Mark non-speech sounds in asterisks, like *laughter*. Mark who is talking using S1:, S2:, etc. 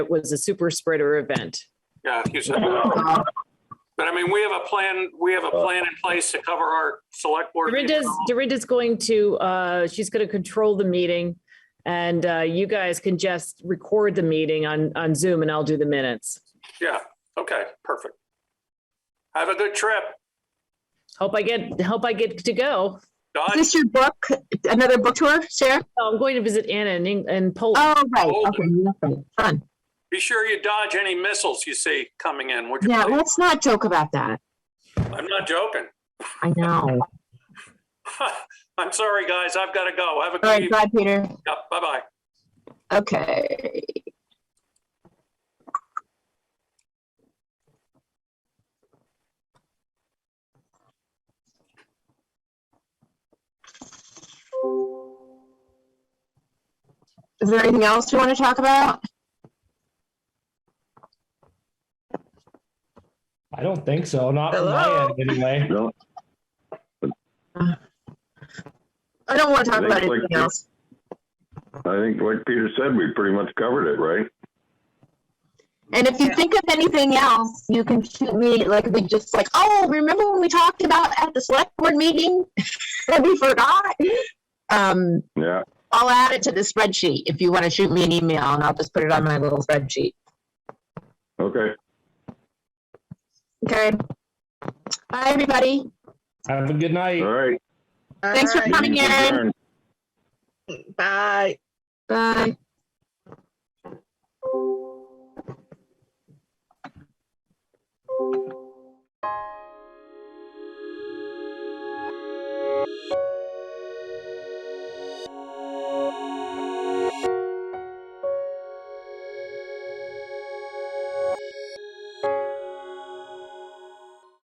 S1: it was a super spreader event.
S2: Yeah, you said that. But I mean, we have a plan, we have a plan in place to cover our select board.
S1: Dorinda's, Dorinda's going to, uh, she's going to control the meeting. And, uh, you guys can just record the meeting on, on Zoom and I'll do the minutes.
S2: Yeah, okay, perfect. Have a good trip.
S1: Hope I get, hope I get to go.
S2: Done.
S3: Is this your book, another book tour, Sarah?
S1: I'm going to visit Anna in, Eng- in Poland.
S3: Oh, right,
S2: Oh.
S3: okay, nothing. fun.
S2: Be sure you dodge any missiles you see coming in. would you
S3: Yeah,
S2: please?
S3: let's not joke about that.
S2: I'm not joking. *laughs*
S3: I know.
S2: I'm sorry, guys. I've got to go. Have a
S3: All
S2: good
S3: right,
S2: evening.
S3: bye, Peter.
S2: Yeah, Bye-bye.
S3: Okay. Is there anything else you want to talk about?
S4: I don't think so. Not from
S3: Hello?
S4: my end, anyway.
S5: No,
S3: I don't want to talk
S5: Thanks,
S3: about
S5: like,
S3: anything
S5: Peter.
S3: else.
S5: I think like Peter said, we pretty much covered it, right?
S3: And if you think of anything else, you can shoot me like we just like, oh, remember when we talked about at the select board meeting *laughs* that we forgot? Um,
S5: Yeah,
S3: I'll add it to the spreadsheet if you want to shoot me an email and I'll just put it on my little spreadsheet.
S5: okay.
S3: Okay. Bye, everybody.
S4: Have a good night.
S5: All right.
S3: Thanks for coming
S5: Meeting's
S3: in.
S5: adjourned.
S6: Bye.
S3: Bye.